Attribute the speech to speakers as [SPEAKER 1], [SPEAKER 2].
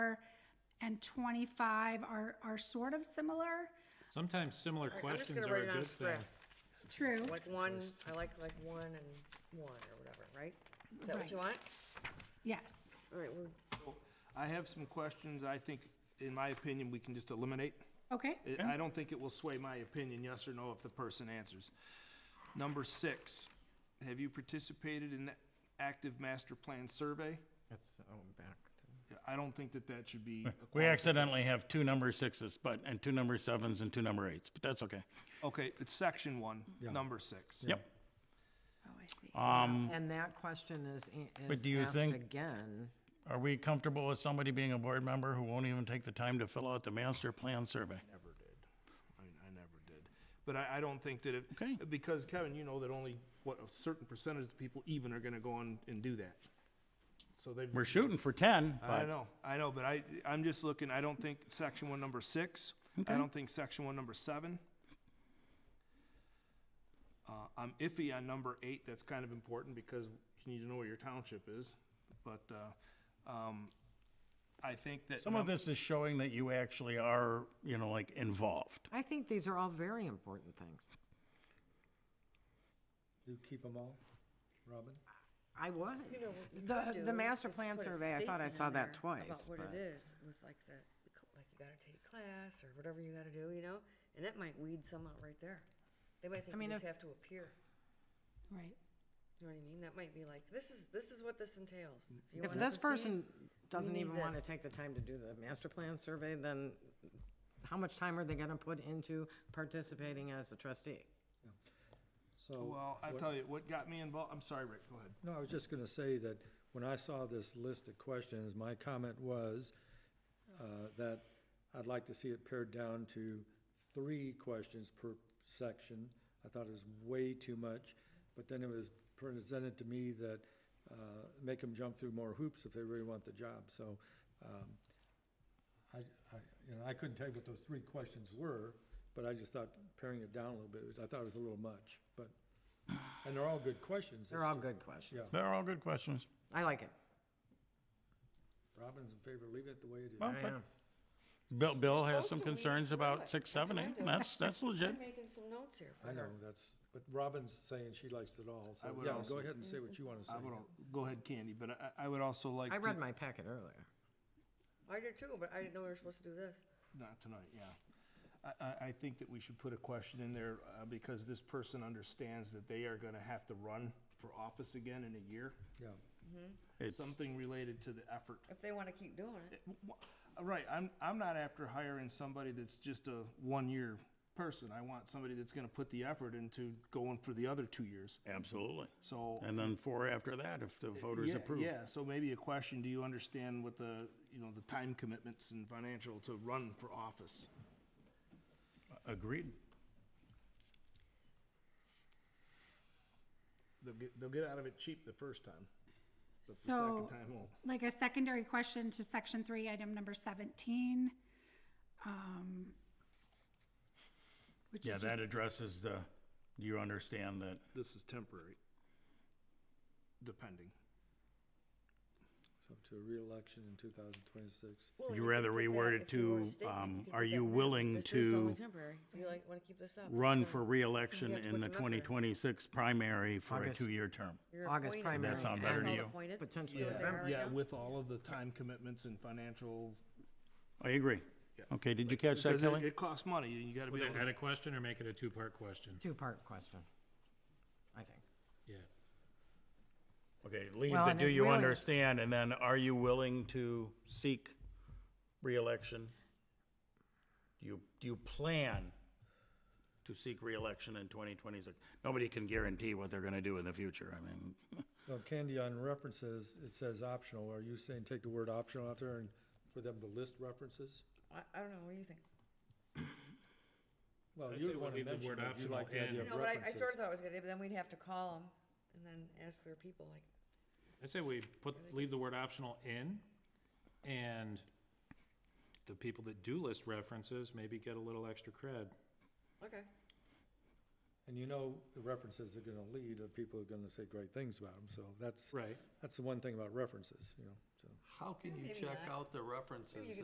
[SPEAKER 1] and twenty-five are, are sort of similar.
[SPEAKER 2] Sometimes similar
[SPEAKER 3] I- I'm just
[SPEAKER 2] questions
[SPEAKER 3] gonna
[SPEAKER 2] are a
[SPEAKER 3] write it on
[SPEAKER 2] good thing.
[SPEAKER 3] script.
[SPEAKER 1] True.
[SPEAKER 3] Like one, I like like one and one or whatever, right? Is that what you want?
[SPEAKER 1] Yes.
[SPEAKER 3] All right, we're,
[SPEAKER 4] I have some questions I think, in my opinion, we can just eliminate.
[SPEAKER 1] Okay.
[SPEAKER 4] I- I don't think it will sway my opinion, yes or no, if the person answers. Number six, have you participated in the active master plan survey?
[SPEAKER 5] That's, oh, I'm back.
[SPEAKER 4] I don't think that that should be. a
[SPEAKER 6] We
[SPEAKER 4] qualification.
[SPEAKER 6] accidentally have two number sixes, but, and two number sevens and two number eights, but that's okay.
[SPEAKER 4] Okay, it's section one, number six.
[SPEAKER 6] Yep.
[SPEAKER 1] Oh, I see.
[SPEAKER 6] Uh,
[SPEAKER 5] And that question is, a-
[SPEAKER 6] Um, But do you
[SPEAKER 5] is asked
[SPEAKER 6] think-
[SPEAKER 5] again.
[SPEAKER 6] Are we comfortable with somebody being a board member who won't even take the time to fill out the master plan survey?
[SPEAKER 4] Never did. I, I never did. But I, I don't think that it.
[SPEAKER 6] Okay.
[SPEAKER 4] Because Kevin, you know that only, what, a certain percentage of people even are gonna go on and do that. So they've.
[SPEAKER 6] We're shooting for ten,
[SPEAKER 4] I
[SPEAKER 6] but
[SPEAKER 4] know, I know, but I, I'm just looking, I don't think section one, number six, I don't think section one, number seven. Uh, I'm iffy on number eight, that's kind of important because you need to know where your township is, but, uh, um, I think that.
[SPEAKER 6] some of this is showing that you actually are, you know, like involved.
[SPEAKER 5] I think these are all very important things.
[SPEAKER 7] Do you keep them all, Robin?
[SPEAKER 5] I would.
[SPEAKER 3] you know, what you could
[SPEAKER 5] The,
[SPEAKER 3] do
[SPEAKER 5] the master
[SPEAKER 3] is
[SPEAKER 5] plan
[SPEAKER 3] put a
[SPEAKER 5] survey, I thought I
[SPEAKER 3] statement
[SPEAKER 5] saw
[SPEAKER 3] in
[SPEAKER 5] that
[SPEAKER 3] there
[SPEAKER 5] twice,
[SPEAKER 3] About what it
[SPEAKER 5] but
[SPEAKER 3] is with like the, like you gotta take class or whatever you gotta do, you know? And that might weed some out right there. They might think you
[SPEAKER 5] mean,
[SPEAKER 3] just
[SPEAKER 5] if-
[SPEAKER 3] have to appear.
[SPEAKER 1] Right.
[SPEAKER 3] You know what I mean? That might be like, this is, this is what this entails. you
[SPEAKER 5] if
[SPEAKER 3] wanna
[SPEAKER 5] this
[SPEAKER 3] proceed,
[SPEAKER 5] person doesn't
[SPEAKER 3] need
[SPEAKER 5] even want to
[SPEAKER 3] this.
[SPEAKER 5] take the time to do the master plan survey, then how much time are they going to put into participating as a trustee?
[SPEAKER 6] uh,
[SPEAKER 7] So.
[SPEAKER 4] Well, I
[SPEAKER 7] what-
[SPEAKER 4] tell you, what got me involved, I'm sorry, Rick, go ahead.
[SPEAKER 7] No, I was just gonna say that when I saw this list of questions, my comment was, uh, that I'd like to see it pared down to three questions per section. I thought it was way too much, but then it was presented to me that, uh, make them jump through more hoops if they really want the job, so, um, I, I, you know, I couldn't tell you what those three questions were, but I just thought paring it down a little bit, was- I thought it was a little much, but, and they're all good questions.
[SPEAKER 5] They're
[SPEAKER 7] it's
[SPEAKER 5] all
[SPEAKER 7] just-
[SPEAKER 5] good questions.
[SPEAKER 6] They're all good questions.
[SPEAKER 5] I like it.
[SPEAKER 7] Robin's in favor of leaving it the way it is.
[SPEAKER 6] Okay. Bill, Bill has some
[SPEAKER 3] supposed to weed
[SPEAKER 6] concerns
[SPEAKER 3] through
[SPEAKER 6] about
[SPEAKER 3] it.
[SPEAKER 6] six,
[SPEAKER 3] That's
[SPEAKER 6] seven,
[SPEAKER 3] what I'm
[SPEAKER 6] eight,
[SPEAKER 3] doing.
[SPEAKER 6] and that's, that's legit.
[SPEAKER 3] I'm making some notes here for
[SPEAKER 7] I know,
[SPEAKER 3] her.
[SPEAKER 7] that's, but Robin's saying she likes it all, so,
[SPEAKER 4] I would
[SPEAKER 7] yeah,
[SPEAKER 4] also-
[SPEAKER 7] go ahead and say what you wanna say.
[SPEAKER 4] I would, al- go ahead, Candy, but I, I would also like
[SPEAKER 5] I
[SPEAKER 4] to.
[SPEAKER 5] read my packet earlier.
[SPEAKER 3] I did too, but I didn't know we were supposed to do this.
[SPEAKER 4] Not tonight, yeah. I, I, I think that we should put a question in there, uh, because this person understands that they are gonna have to run for office again in a year.
[SPEAKER 7] Yeah,
[SPEAKER 6] It's-
[SPEAKER 4] Something related to the effort.
[SPEAKER 3] If they wanna keep doing it.
[SPEAKER 4] Uh, Right, I'm, I'm not after hiring somebody that's just a one-year person. I want somebody that's gonna put the effort into going for the other two years,
[SPEAKER 6] Absolutely.
[SPEAKER 4] so.
[SPEAKER 6] And then four after that, if the voters
[SPEAKER 4] Yeah,
[SPEAKER 6] approve.
[SPEAKER 4] Yeah, so maybe a question, do you understand what the, you know, the time commitments and financial to run for office?
[SPEAKER 6] Agreed.
[SPEAKER 4] They'll get, they'll get out of it cheap the first time, but the second
[SPEAKER 1] So,
[SPEAKER 4] time won't.
[SPEAKER 1] like a secondary question to section three, item number seventeen. um, Which
[SPEAKER 6] Yeah,
[SPEAKER 1] is
[SPEAKER 6] that
[SPEAKER 1] just,
[SPEAKER 6] addresses the, you understand that,
[SPEAKER 4] This is temporary. Depending.
[SPEAKER 7] so to a reelection in two thousand twenty-six.
[SPEAKER 3] Well,
[SPEAKER 6] You
[SPEAKER 3] could
[SPEAKER 6] rather
[SPEAKER 3] put that-
[SPEAKER 6] reword it
[SPEAKER 3] if you want a
[SPEAKER 6] to,
[SPEAKER 3] statement,
[SPEAKER 6] um,
[SPEAKER 3] could
[SPEAKER 6] are
[SPEAKER 3] put
[SPEAKER 6] you
[SPEAKER 3] that in there.
[SPEAKER 6] willing
[SPEAKER 3] This is only
[SPEAKER 6] to
[SPEAKER 3] temporary. If you like, wanna keep this up. it's
[SPEAKER 6] run
[SPEAKER 3] gonna-
[SPEAKER 6] for reelection
[SPEAKER 3] You have to
[SPEAKER 6] in
[SPEAKER 3] put
[SPEAKER 6] the
[SPEAKER 3] some effort.
[SPEAKER 6] twenty twenty-six primary for a
[SPEAKER 5] August.
[SPEAKER 6] two-year term.
[SPEAKER 3] you're
[SPEAKER 5] August
[SPEAKER 3] appointed.
[SPEAKER 5] primary. That
[SPEAKER 6] sound better to
[SPEAKER 3] Called
[SPEAKER 6] you?
[SPEAKER 3] appointed.
[SPEAKER 5] Potentially
[SPEAKER 3] Do it
[SPEAKER 5] Yeah.
[SPEAKER 3] there right
[SPEAKER 4] Yeah,
[SPEAKER 3] now.
[SPEAKER 4] with all of the time commitments and financial.
[SPEAKER 6] I agree. Okay, did you catch that,
[SPEAKER 4] Because it-
[SPEAKER 6] Kelly?
[SPEAKER 4] It costs money, and you gotta
[SPEAKER 2] Would
[SPEAKER 4] be
[SPEAKER 2] they
[SPEAKER 4] able
[SPEAKER 2] add
[SPEAKER 4] to.
[SPEAKER 2] a question or make it a two-part question?
[SPEAKER 5] Two-part question, I think.
[SPEAKER 2] Yeah.
[SPEAKER 6] Okay, leave
[SPEAKER 5] Well,
[SPEAKER 6] the
[SPEAKER 5] and
[SPEAKER 6] do
[SPEAKER 5] it
[SPEAKER 6] you
[SPEAKER 5] really-
[SPEAKER 6] understand, and then are you willing to seek reelection? Do you, do you plan to seek reelection in twenty twenty-six? Nobody can guarantee what they're gonna do in the future, I mean,
[SPEAKER 7] So Candy, on references, it says optional, are you saying take the word optional out there and for them to list references?
[SPEAKER 3] I, I don't know, what do you think?
[SPEAKER 7] Well,
[SPEAKER 2] I
[SPEAKER 7] you're
[SPEAKER 2] say
[SPEAKER 7] the
[SPEAKER 2] we
[SPEAKER 7] one who
[SPEAKER 2] leave the
[SPEAKER 7] mentioned
[SPEAKER 2] word
[SPEAKER 7] it, you
[SPEAKER 2] optional
[SPEAKER 7] like the
[SPEAKER 2] in.
[SPEAKER 7] idea
[SPEAKER 3] I
[SPEAKER 7] of
[SPEAKER 3] know, but I, I
[SPEAKER 7] references.
[SPEAKER 3] sort of thought it was gonna, but then we'd have to call them and then ask their people, like,
[SPEAKER 2] I say we put, leave the word optional in, and the people that do list references maybe get a little extra cred.
[SPEAKER 3] okay.
[SPEAKER 7] And you know, the references are gonna lead, and people are gonna say great things about them, so that's,
[SPEAKER 2] Right.
[SPEAKER 7] that's the one thing about references, you know, so.
[SPEAKER 8] How can you
[SPEAKER 3] Maybe
[SPEAKER 8] check
[SPEAKER 3] not.
[SPEAKER 8] out the references